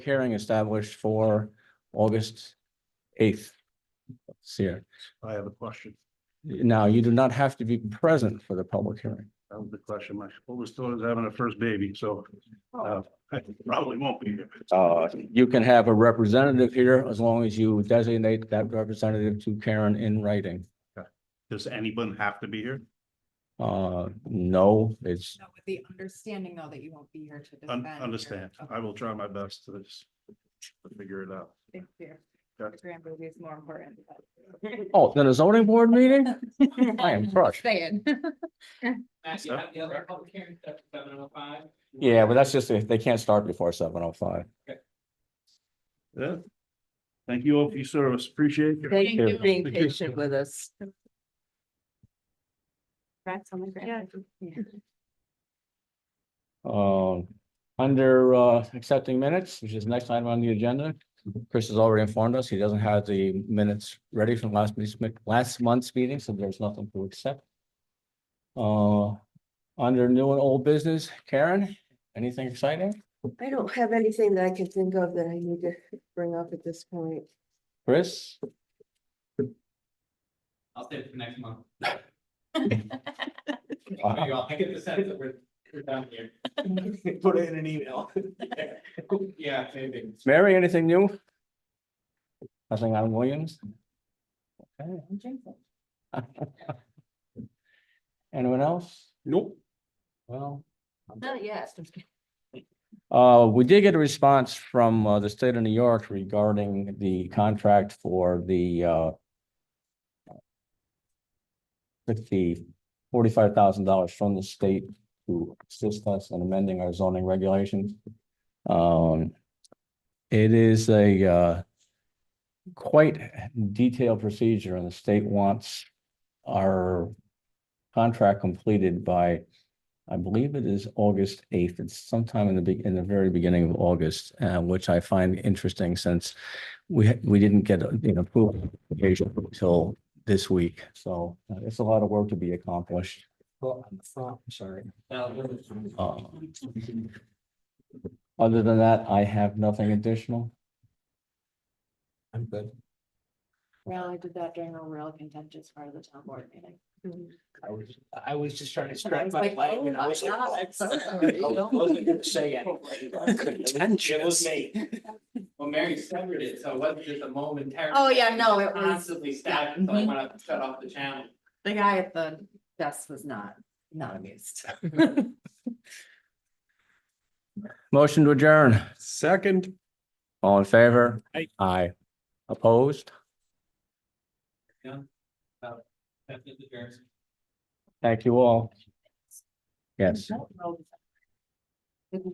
hearing established for August eighth. Here, I have a question. now you do not have to be present for the public hearing. That was the question. My oldest daughter's having her first baby, so uh, I probably won't be here. Uh, you can have a representative here as long as you designate that representative to Karen in writing. Does anyone have to be here? Uh, no, it's, No, with the understanding though that you won't be here to Un- defend. your- Understand. Uh, Okay, I will try my best to just figure it out. Thank you. Yeah. The grand movie is more important. oh, then a zoning board meeting? Oh, I am crushed. Saying. Matt, you So- have the other public hearing, that's seven oh five. Yeah, but that's just, if they can't start before seven oh five. Yeah. Thank you all for your service. Appreciate it. Thank you you. for being Thank you. patient with us. That's on the grand. movie. Um, under uh accepting minutes, which is next item on the agenda. Chris has already informed us. He doesn't have the minutes ready from last meeting's, mi- last month's meeting, so there's nothing to accept. Uh, under new and old business, Karen, anything exciting? I don't have anything that I can think of that I need to bring up at this point. Chris? I'll save it for next month. Wow. You all- I get the sense that we're, we're down here. Put it in an email. Yeah, maybe. Mary, anything new? Nothing on Williams? Okay. Anyone else? Nope. Well. Not yet. Uh, we did get a response from uh, the state of New York regarding the contract for the uh. Fifty, forty-five thousand dollars from the state to assist us in amending our zoning regulations. Um, it is a uh. Quite detailed procedure and the state wants our contract completed by I believe it is August eighth. It's sometime in the big, in the very beginning of August, uh, which I find interesting since we, ha- we didn't get, uh, you know, approval application until this week. So uh, it's a lot of work to be accomplished. Well, I'm sorry. Other than that, I have nothing additional. I'm good. Well, I did that during a real contentious part of the town board meeting. I was, I was just trying to I strike was my like, leg oh and I my was like. God, oh, I'm so I sorry. Wasn't gonna say anything. It was me. Well, Mary severed it, so it wasn't just a momentary. Oh, yeah, no, it was- Mm-hmm. Constantly stabbed, so I want to shut off the channel. The guy at the desk was not, not amused. Motion to adjourn. Second. All in favor? Aye. Aye. Opposed? That's the jerks. Thank you all. Yes. Don't roll the-